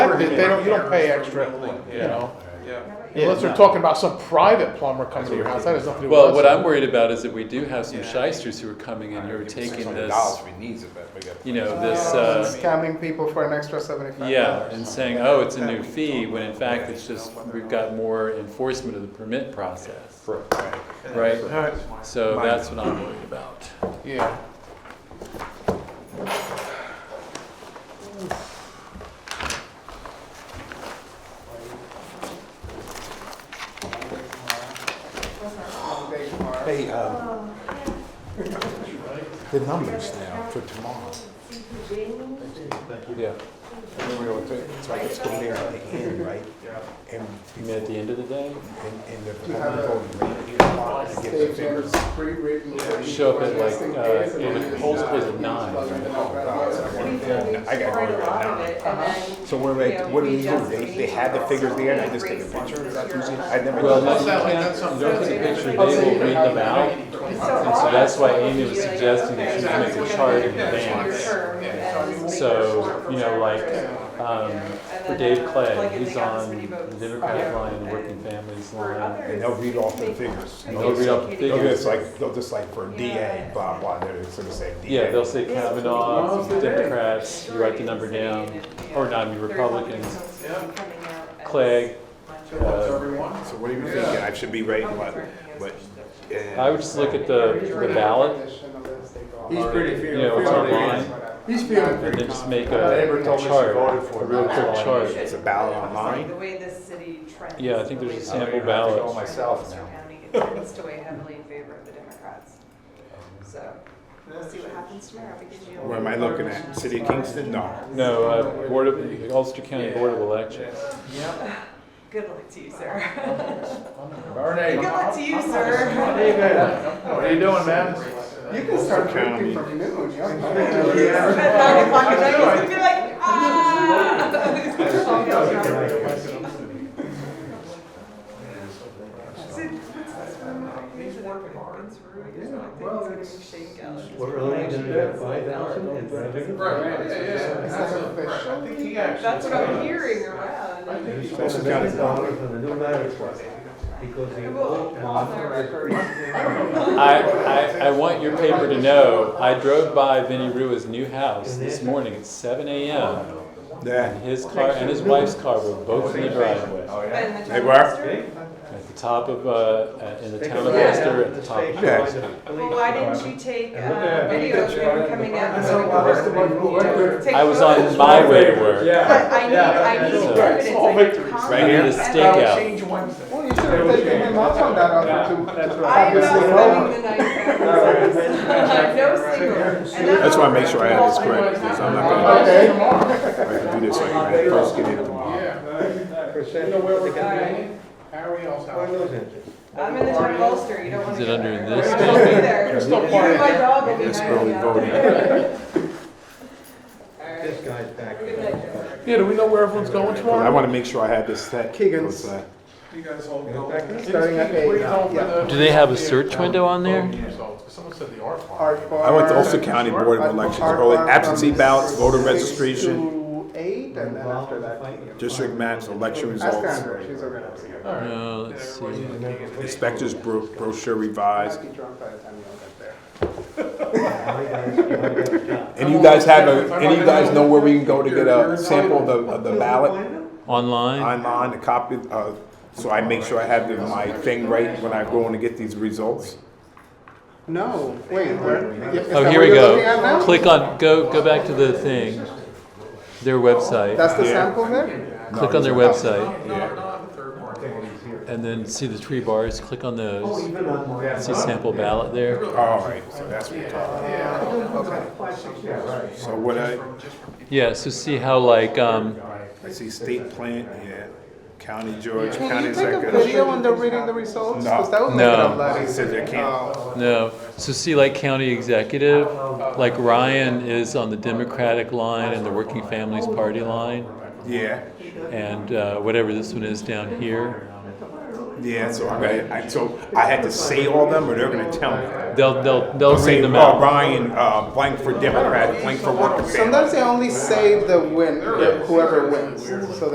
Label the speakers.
Speaker 1: they, they don't, you don't pay
Speaker 2: Errors
Speaker 1: extra,
Speaker 2: from building,
Speaker 1: you know?
Speaker 2: Yeah,
Speaker 3: Yeah,
Speaker 1: Unless they're
Speaker 3: no.
Speaker 1: talking about some private plumber coming to your house, that has nothing to do with us.
Speaker 4: Well, what I'm worried about is that we do have some
Speaker 2: Yeah.
Speaker 4: shysters who are coming in who are taking
Speaker 5: Dollars
Speaker 4: this,
Speaker 5: if he needs it, but we got.
Speaker 4: you know, this, uh,
Speaker 3: Scamming people for an extra seventy-five.
Speaker 4: yeah, and saying, oh, it's a new fee, when in fact it's just, we've got more enforcement of the permit process, right?
Speaker 1: Alright,
Speaker 4: So that's what I'm worried about.
Speaker 1: yeah.
Speaker 5: Hey, um, the numbers now for tomorrow.
Speaker 4: Yeah.
Speaker 5: Remember what the- It's like it's going there at the end, right? And,
Speaker 4: You mean at the end of the day?
Speaker 5: and, and the public voting right here, and it gives them figures.
Speaker 4: Show up at like, uh, it was posted at nine,
Speaker 5: I got one right now. So we're like, what do we do? They, they had the figures there and I just take a picture? Is that easy? I never.
Speaker 4: Well, no,
Speaker 5: done
Speaker 4: you
Speaker 5: that.
Speaker 4: can't, don't take a picture, they will read them out, and so that's why Amy was suggesting that you make a chart in advance. So, you know, like, um, for Dave Clay, he's on the Democratic line, the Working Families line,
Speaker 5: And they'll read off the figures.
Speaker 4: and they'll read out the
Speaker 5: They'll
Speaker 4: figures.
Speaker 5: just like, they'll just like for DA, blah, blah, they're just gonna say DA.
Speaker 4: Yeah, they'll say Kavanaugh, Democrats, you write the number down, or not, you Republicans, Clegg, uh,
Speaker 5: So what do you think? I should be writing what, what?
Speaker 4: I would just look at the, the ballot,
Speaker 2: He's pretty
Speaker 4: you know, what's online,
Speaker 2: He's feeling
Speaker 4: and
Speaker 2: pretty
Speaker 4: then just make
Speaker 2: confident.
Speaker 5: My
Speaker 4: a
Speaker 5: neighbor told me she
Speaker 4: chart,
Speaker 5: voted for
Speaker 4: a real
Speaker 5: it.
Speaker 4: quick chart.
Speaker 5: It's a ballot online?
Speaker 6: The way this city trends.
Speaker 4: Yeah, I think there's a
Speaker 6: the way
Speaker 4: sample
Speaker 6: Democrats
Speaker 4: ballot.
Speaker 6: trend in
Speaker 5: Myself
Speaker 6: Western
Speaker 5: now.
Speaker 6: County, It tends to weigh heavily in favor of the Democrats. So we'll see what happens tomorrow because you.
Speaker 5: Where am I looking at? City of Kingston? No.
Speaker 4: No, uh, Board of, Ulster County Board of Elections.
Speaker 6: Good luck to you, sir.
Speaker 1: Bernie,
Speaker 6: Good luck to you, sir.
Speaker 1: what are you doing, man?
Speaker 3: You can start drinking from noon, yeah.
Speaker 6: At nine o'clock at night, he's gonna be like, ah. He's working hard. It's really good. I think
Speaker 2: well,
Speaker 6: it's gonna be Shane Gallagher.
Speaker 7: What are they gonna do at five thousand and five hundred?
Speaker 2: Right, yeah, yeah, absolutely. Right. I think he actually.
Speaker 6: That's what I'm
Speaker 2: said-
Speaker 6: hearing around.
Speaker 2: I think he-
Speaker 5: That's
Speaker 7: That's
Speaker 5: a
Speaker 7: a
Speaker 5: county.
Speaker 7: thousand dollars on the new marriage license, because the old one.
Speaker 4: I, I, I want your paper to know, I drove by Vinnie Rua's new house this morning at seven AM.
Speaker 5: Yeah.
Speaker 4: His car and his wife's car were both in the driveway,
Speaker 6: And the
Speaker 5: They
Speaker 6: town
Speaker 5: were?
Speaker 6: minister?
Speaker 4: at the top of, uh, in the town of
Speaker 7: Yeah.
Speaker 4: Ulster, at the top of
Speaker 5: Yeah.
Speaker 4: Charleston.
Speaker 6: Well, why didn't you take
Speaker 7: And look at
Speaker 6: uh
Speaker 7: it.
Speaker 6: video of him coming out?
Speaker 7: That's
Speaker 6: going
Speaker 7: how
Speaker 6: to
Speaker 7: I was the
Speaker 6: work?
Speaker 7: one who worked
Speaker 6: Take
Speaker 4: I was
Speaker 6: photos.
Speaker 4: on my way to work.
Speaker 6: But I need, I need
Speaker 4: So-
Speaker 6: evidence, I need comments.
Speaker 4: I needed a stakeout.
Speaker 2: Change one thing.
Speaker 3: Well, you should have taken him up on that offer too. That's
Speaker 6: I'm not spending the night. I'm no singer. And
Speaker 5: That's why I make sure I have this correct, because I'm not gonna, I can do this like when I first get in tomorrow.
Speaker 1: Yeah,
Speaker 7: Percent.
Speaker 1: you know where we're
Speaker 7: they can do it.
Speaker 1: going? Harry else
Speaker 7: Why
Speaker 1: out.
Speaker 7: those engines?
Speaker 6: I'm in the town of Ulster, you don't want
Speaker 4: Is
Speaker 6: to.
Speaker 4: it
Speaker 6: go
Speaker 4: under
Speaker 6: there.
Speaker 4: this
Speaker 6: Don't be there.
Speaker 1: It's still
Speaker 6: You and my dog will be
Speaker 5: It's
Speaker 6: hanging
Speaker 5: early
Speaker 6: out
Speaker 5: voting.
Speaker 6: there. All
Speaker 7: This
Speaker 6: right.
Speaker 7: guy's back.
Speaker 6: Good night, Joe.
Speaker 1: Yeah, do we know where everyone's going
Speaker 5: I
Speaker 1: tomorrow?
Speaker 5: wanna make sure I had this set.
Speaker 3: Keegan's.
Speaker 5: Was, uh,
Speaker 2: You guys all
Speaker 7: You know,
Speaker 2: go.
Speaker 7: back then,
Speaker 3: Starting at eight, yeah.
Speaker 4: Do they have a search window on there?
Speaker 1: Someone said the art farm.
Speaker 3: Art
Speaker 5: I went to
Speaker 3: bar-
Speaker 5: Ulster County Board of
Speaker 3: art-
Speaker 5: Elections
Speaker 3: art
Speaker 5: early,
Speaker 3: bar
Speaker 5: absentee
Speaker 3: from
Speaker 5: ballots, voter
Speaker 3: six
Speaker 5: registration,
Speaker 3: to Eight, and then after that.
Speaker 5: district maps, election
Speaker 3: Ask
Speaker 5: results,
Speaker 3: Andrew, she's organized.
Speaker 4: No, Uh, let's see.
Speaker 5: inspectors bro- brochure revised.
Speaker 3: Might be drunk by the time you all get there.
Speaker 7: My guy's, my guy's job.
Speaker 5: And you guys have a, any of you guys know where we can go to get a sample of the, of the ballot
Speaker 4: Online?
Speaker 5: online, a copy, uh, so I make sure I have the- my thing right when I go in to get these results?
Speaker 3: No, wait, where? is that
Speaker 4: Oh, here
Speaker 3: what
Speaker 4: we
Speaker 3: you're looking at
Speaker 4: go.
Speaker 3: now?
Speaker 4: Click on, go, go back to the thing, their website.
Speaker 3: That's the
Speaker 5: Yeah.
Speaker 3: sample there?
Speaker 4: Click on their website
Speaker 5: Yeah.
Speaker 4: and then see the three bars, click on
Speaker 7: Oh,
Speaker 4: those.
Speaker 7: even on my.
Speaker 4: See sample ballot there.
Speaker 5: All right, so that's what we're talking
Speaker 7: Five, six, yeah, right.
Speaker 5: about. So what I,
Speaker 4: Yeah, so see how like, um,
Speaker 5: I see state plant, yeah, county George,
Speaker 3: Can
Speaker 5: county
Speaker 3: you take a
Speaker 5: executive.
Speaker 3: video when they're reading the results?
Speaker 5: No.
Speaker 3: Because that would make it
Speaker 4: No.
Speaker 3: a lot
Speaker 5: They said
Speaker 3: easier.
Speaker 5: they can't.
Speaker 3: Oh.
Speaker 4: no, so see like county executive, like Ryan is on the Democratic line and the Working Families Party line.
Speaker 5: Yeah,
Speaker 4: And uh, whatever this one is down here,
Speaker 5: yeah, so I gotta, I, so I had to say all them or they're gonna tell me.
Speaker 4: they'll, they'll, they'll
Speaker 5: Say,
Speaker 4: read them
Speaker 5: oh,
Speaker 4: out.
Speaker 5: Ryan, uh, blank for Democrat, blank for working family.
Speaker 3: Sometimes they only say the win, whoever wins, so